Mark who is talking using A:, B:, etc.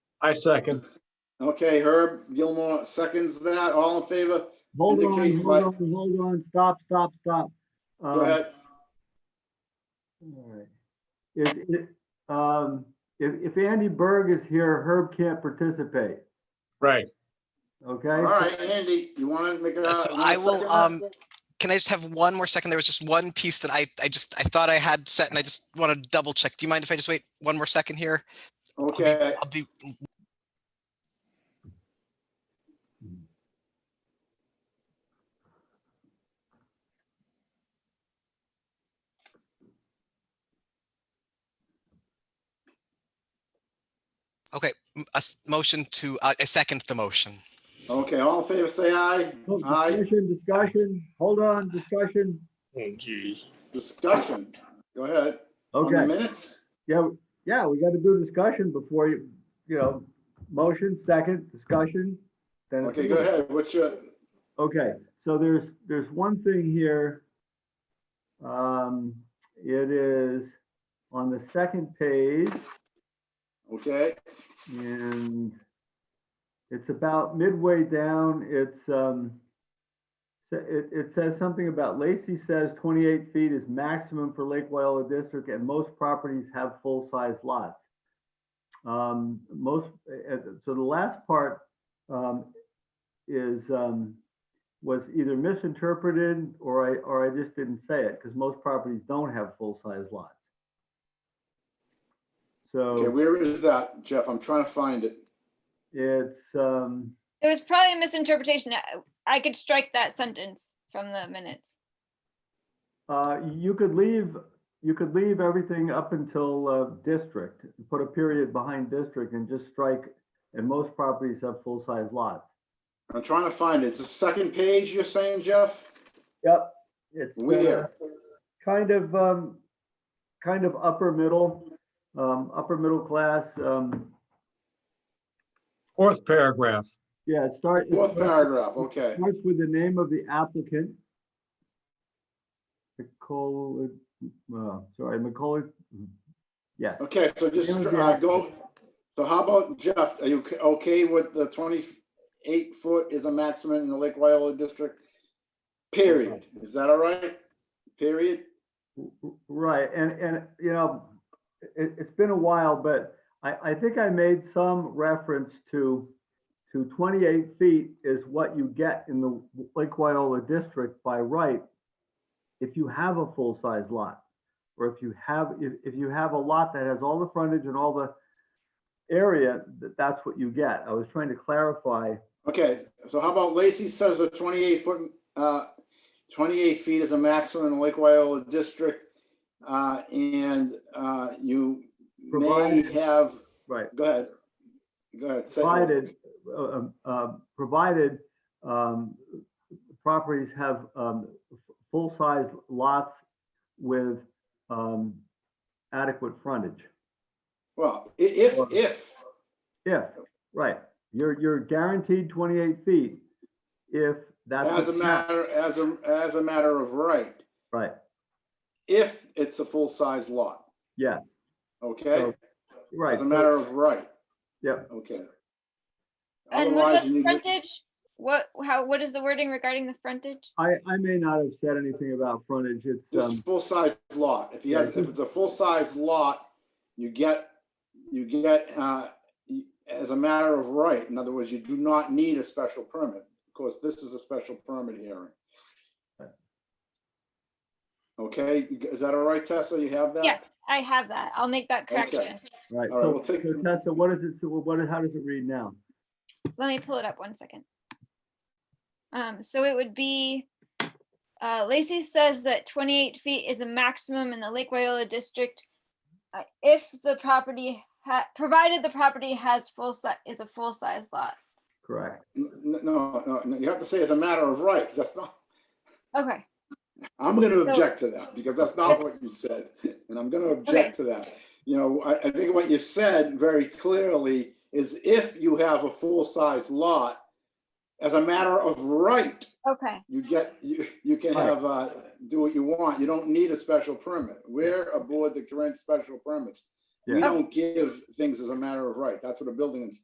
A: I second.
B: Okay, Herb Gilmore seconds that. All in favor?
C: Hold on,
B: Indicate
C: hold
B: by-
C: on, hold on, stop, stop, stop.
B: Go
C: Um,
B: ahead.
C: Alright. Um, If, if, um, if, if Andy Berg is here, Herb can't participate,
A: Right.
C: okay?
B: All right, Andy, you want to make a?
D: So
B: you wanna
D: I will,
B: second that?
D: um, can I just have one more second? There was just one piece that I, I just, I thought I had set and I just want to double check. Do you mind if I just wait one more second here?
B: Okay,
D: I'll be, okay, m- a s- motion to, uh, I second the motion.
B: okay, all in favor, say aye.
C: Oh,
B: Aye,
C: Discussion, discussion, hold on, discussion,
E: Oh, geez.
B: discussion. Go ahead. On the
C: okay,
B: minutes?
C: yeah, yeah, we gotta do discussion before you, you know, motion, second, discussion. then it's-
B: Okay, go ahead. What's your,
C: Okay, so there's, there's one thing here. Um, it is on the second page.
B: okay,
C: And it's about midway down, it's, um, sa- it, it says something about Lacey says twenty-eight feet is maximum for Lake Wyola District and most properties have full-size lots. Um, most, uh, uh, so the last part, um, is, um, was either misinterpreted or I, or I just didn't say it, because most properties don't have full-size lots. So.
B: okay, where is that, Jeff? I'm trying to find it.
C: It's, um,
F: It was probably a misinterpretation. I- I could strike that sentence from the minutes.
C: uh, you could leave, you could leave everything up until, uh, district, put a period behind district and just strike, and most properties have full-size lots.
B: I'm trying to find it. It's the second page you're saying, Jeff?
C: Yep. It's uh,
B: Where?
C: Kind of, um, kind of upper middle, um, upper middle class, um,
A: Fourth paragraph.
C: yeah, it starts.
B: Fourth paragraph, okay.
C: Starts with the name of the applicant. McCullough, uh, sorry, McCullough, yeah.
B: Okay, so just
C: Name of the
B: uh, go, so how about Jeff? Are you c- okay with the twenty-eight foot is a maximum in the Lake Wyola district? Period. Is that all right? Period?
C: Right, and, and, you know, it, it's been a while, but I, I think I made some reference to, to 28 feet is what you get in the Lake Wyola district by right if you have a full-size lot, or if you have, if, if you have a lot that has all the frontage and all the area, that, that's what you get. I was trying to clarify,
B: Okay, so how about Lacy says the twenty-eight foot, uh, twenty-eight feet is a maximum in the Lake Wyola district. Uh, and, uh, you may
C: Provided-
B: have,
C: right?
B: go ahead. Go ahead. say it.
C: Provided, uh, um, uh, provided um, properties have um, f- full-size lots with um, adequate frontage.
B: Well, i- if, if,
C: If, right, you're, you're guaranteed 28 feet if that's.
B: as a
C: what's hap-
B: matter, as a, as a matter of right.
C: Right,
B: if it's a full-size lot,
C: yeah,
B: okay?
C: So, right.
B: As a matter of right,
C: Yep,
B: okay?
F: And what
B: Otherwise,
F: about
B: you need,
F: the
B: to-
F: frontage? What, how, what is the wording regarding the frontage?
C: I, I may not have said anything about frontage, it's,
B: this
C: um,
B: full-size lot, if he has,
C: Yeah.
B: if it's a full-size lot, you get, you get, uh, y- as a matter of right, in other words, you do not need a special permit. Of course, this is a special permit hearing. Okay, you g- is that all right, Tessa? You have that?
F: Yes, I have that. I'll make that
B: Okay.
F: correction.
C: right.
B: all right,
C: So-
B: we'll take-
C: so Tessa, what is it, so what, how does it read now?
F: Let me pull it up one second. Um, so it would be, uh, Lacy says that twenty-eight feet is a maximum in the Lake Wyola district. uh, If the property ha, provided the property has full si, is a full-size lot.
C: Correct,
B: N- n- No, no, no, you have to say as a matter of right, 'cause that's not,
F: Okay,
B: I'm going to
F: So-
B: object to that because that's not what you said, and I'm going to object to that. You know, I, I think what you said very clearly is if you have a full-size lot, as a matter of right,
F: okay.
B: you get, you, you can
C: Right.
B: have, uh, do what you want. You don't need a special permit. We're aboard the current special permits. We
C: Yeah.
B: don't give things as a matter of right. That's what a building inspector